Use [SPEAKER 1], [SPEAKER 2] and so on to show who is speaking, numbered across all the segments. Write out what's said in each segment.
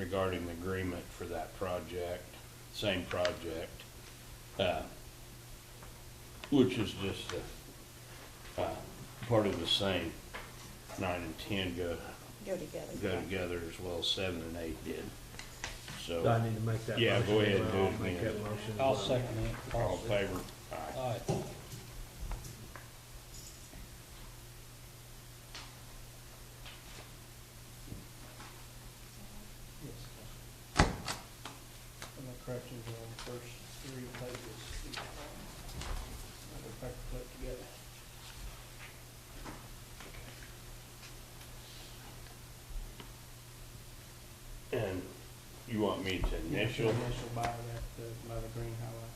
[SPEAKER 1] regarding the agreement for that project, same project. uh, Which is just, uh, uh, part of the same, nine and ten go,
[SPEAKER 2] Go together.
[SPEAKER 1] go together as well, as seven and eight did.
[SPEAKER 3] Do I
[SPEAKER 1] So,
[SPEAKER 3] need to make that?
[SPEAKER 1] Yeah,
[SPEAKER 3] motion?
[SPEAKER 1] go ahead and do
[SPEAKER 3] I'll
[SPEAKER 1] it,
[SPEAKER 3] Make
[SPEAKER 1] man.
[SPEAKER 3] that motion.
[SPEAKER 4] I'll second it.
[SPEAKER 1] all in favor? Aye.
[SPEAKER 4] Aye.
[SPEAKER 5] And the corrections are on the first three pages. Another paper put together.
[SPEAKER 1] And you want me to initial?
[SPEAKER 5] Initial by that, uh, by the green highlight.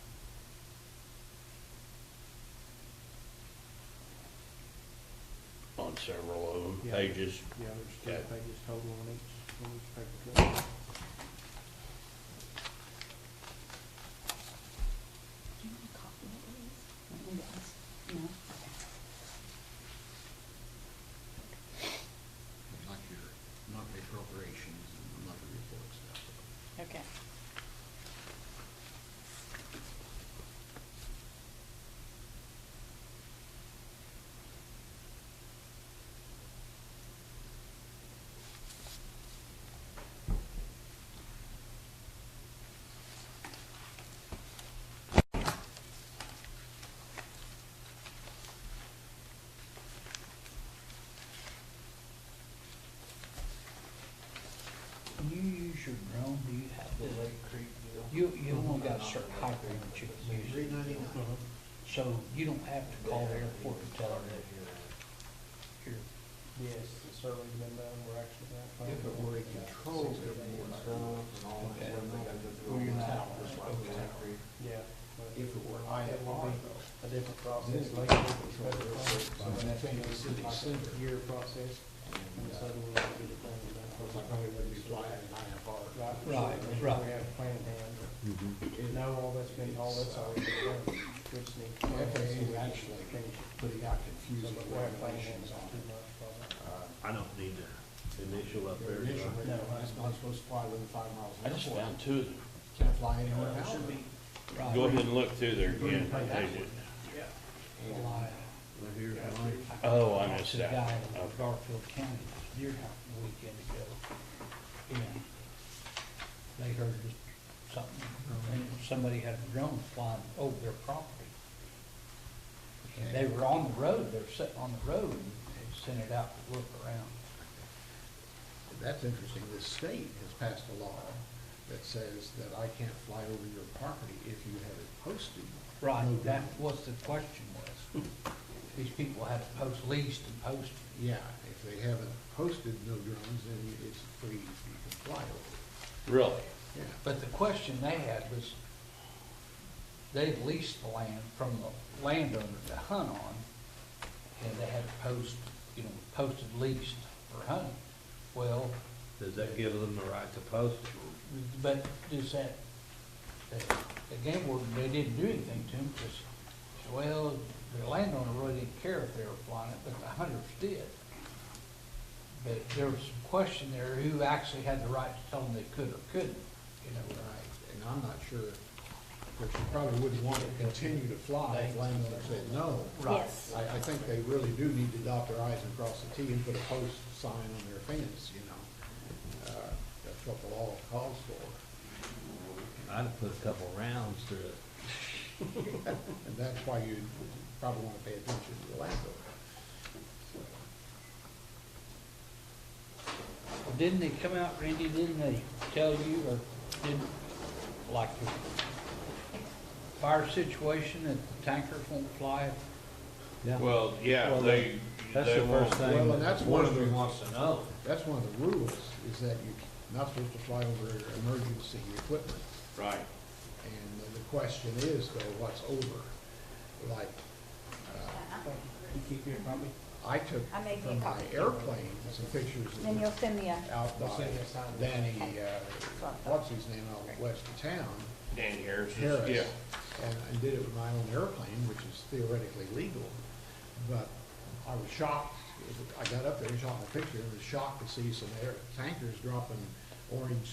[SPEAKER 1] on several of them,
[SPEAKER 5] Yeah.
[SPEAKER 1] pages.
[SPEAKER 5] Yeah, there's three
[SPEAKER 1] Okay.
[SPEAKER 5] pages total on each, on each paper clip.
[SPEAKER 2] Do you want a copy of these? No?
[SPEAKER 6] like your monthly appropriations and monthly reports.
[SPEAKER 2] Okay.
[SPEAKER 4] You use your drone, do you have
[SPEAKER 5] The
[SPEAKER 4] to,
[SPEAKER 5] Lake Creek deal.
[SPEAKER 4] you, you only got a certain height range you can use
[SPEAKER 6] Three
[SPEAKER 4] it.
[SPEAKER 6] ninety-nine.
[SPEAKER 4] So you don't have to call the airport and tell them that you're,
[SPEAKER 5] Yes, the survey's been done, we're actually. gonna
[SPEAKER 6] If it
[SPEAKER 5] find
[SPEAKER 6] were a
[SPEAKER 5] out.
[SPEAKER 6] controlled
[SPEAKER 5] Sixty days.
[SPEAKER 6] airport, and all that, then they got to do
[SPEAKER 4] Well,
[SPEAKER 6] all
[SPEAKER 4] you're not-
[SPEAKER 6] that, that's why we have to-
[SPEAKER 5] Yeah. but
[SPEAKER 6] If it
[SPEAKER 5] would
[SPEAKER 6] were
[SPEAKER 5] be
[SPEAKER 6] IFR,
[SPEAKER 5] A different process.
[SPEAKER 6] This is like a controlled airport, so
[SPEAKER 5] But
[SPEAKER 6] that's
[SPEAKER 5] been
[SPEAKER 6] in the city
[SPEAKER 5] like a
[SPEAKER 6] center.
[SPEAKER 5] Year process, and
[SPEAKER 6] and, uh,
[SPEAKER 5] so we'll have to get it done.
[SPEAKER 6] Of course, I probably wouldn't be flying an
[SPEAKER 5] "Oh,
[SPEAKER 6] IFR.
[SPEAKER 5] Right,
[SPEAKER 4] Right,
[SPEAKER 5] so we
[SPEAKER 4] right.
[SPEAKER 5] have a plan in hand,
[SPEAKER 1] Mm-hmm.
[SPEAKER 5] but no, all that's been, all that's already been done, we just need. to-
[SPEAKER 6] FAA actually
[SPEAKER 5] Finish it.
[SPEAKER 6] pretty got
[SPEAKER 5] So,
[SPEAKER 6] confused
[SPEAKER 5] but
[SPEAKER 6] with
[SPEAKER 5] we're planning
[SPEAKER 6] regulations
[SPEAKER 5] on
[SPEAKER 6] on
[SPEAKER 5] two
[SPEAKER 6] it.
[SPEAKER 5] months probably.
[SPEAKER 6] Uh,
[SPEAKER 3] I don't need to initial up
[SPEAKER 6] Their
[SPEAKER 3] there.
[SPEAKER 6] initial,
[SPEAKER 3] do I?
[SPEAKER 6] rate, it's not supposed to fly within five miles
[SPEAKER 1] I
[SPEAKER 6] an hour.
[SPEAKER 1] just found two of them.
[SPEAKER 6] Can't fly anywhere in Alabama.
[SPEAKER 4] right.
[SPEAKER 1] Go ahead and look through there again.
[SPEAKER 4] Lie.
[SPEAKER 3] Right here, right?
[SPEAKER 1] Oh, I missed
[SPEAKER 4] To the
[SPEAKER 1] that.
[SPEAKER 4] guy in
[SPEAKER 1] Okay.
[SPEAKER 4] Garfield County, this deer hunting weekend ago. And they heard this- something, and somebody had a drone flying over their property. And they were on the road, they were sitting on the road, and they sent it out to look around.
[SPEAKER 6] That's interesting, the state has passed a law that says that I can't fly over your property if you have it posted.
[SPEAKER 4] Right,
[SPEAKER 6] No
[SPEAKER 4] that
[SPEAKER 6] doubt.
[SPEAKER 4] was the question was, these people had to post leased and posted.
[SPEAKER 6] Yeah, if they haven't posted no drones, then it's free, you can fly over. it.
[SPEAKER 1] Oh, Really?
[SPEAKER 6] Yeah,
[SPEAKER 4] But the question they had was, they leased the land from the landowner to hunt on, and they had to post, you know, posted leased for hunting. Well,
[SPEAKER 3] Does that give them the right to post it?
[SPEAKER 4] but does that, the the game warden, they didn't do anything to them, because, well, the landowner really didn't care if they were flying it, but the hunters did. But there was some question there, who actually had the right to tell them they could or couldn't, you know,
[SPEAKER 6] right, and I'm not sure, but you probably wouldn't want to continue to fly if landowners said no.
[SPEAKER 4] Right.
[SPEAKER 2] Yes.
[SPEAKER 6] I, I think they really do need to dot their i's and cross the t and put a post sign on their fence, you know. Uh, That's what the law calls for,
[SPEAKER 3] I'd have put a couple rounds through it.
[SPEAKER 6] and that's why you probably want to pay attention to the landowner.
[SPEAKER 4] Well, Didn't they come out, Randy, didn't they tell you, or didn't, like the fire situation, that the tankers won't fly?
[SPEAKER 3] Yeah.
[SPEAKER 1] Well, yeah,
[SPEAKER 3] Well,
[SPEAKER 1] they,
[SPEAKER 3] That's
[SPEAKER 1] they
[SPEAKER 3] the
[SPEAKER 1] won't.
[SPEAKER 3] first thing.
[SPEAKER 6] Well, and that's one of the-
[SPEAKER 3] Forestry Wants to know.
[SPEAKER 6] That's one of the rules, is that you're not supposed to fly over emergency equipment.
[SPEAKER 1] Right.
[SPEAKER 6] And the question is, though, what's over? Like, uh,
[SPEAKER 5] You keep your copy?
[SPEAKER 6] I took
[SPEAKER 2] I may be
[SPEAKER 6] from my
[SPEAKER 2] copying.
[SPEAKER 6] airplane some pictures
[SPEAKER 2] Then you'll
[SPEAKER 6] of
[SPEAKER 2] send me a,
[SPEAKER 6] out
[SPEAKER 5] We'll
[SPEAKER 6] by
[SPEAKER 5] send you a sign.
[SPEAKER 6] Danny, uh, what's his name, out west of town,
[SPEAKER 1] Dan Harris, is- yeah.
[SPEAKER 6] Harris. And I did it with my own airplane, which is theoretically legal. But I was shocked, I got up there and shot my picture, and was shocked to see some air tankers dropping orange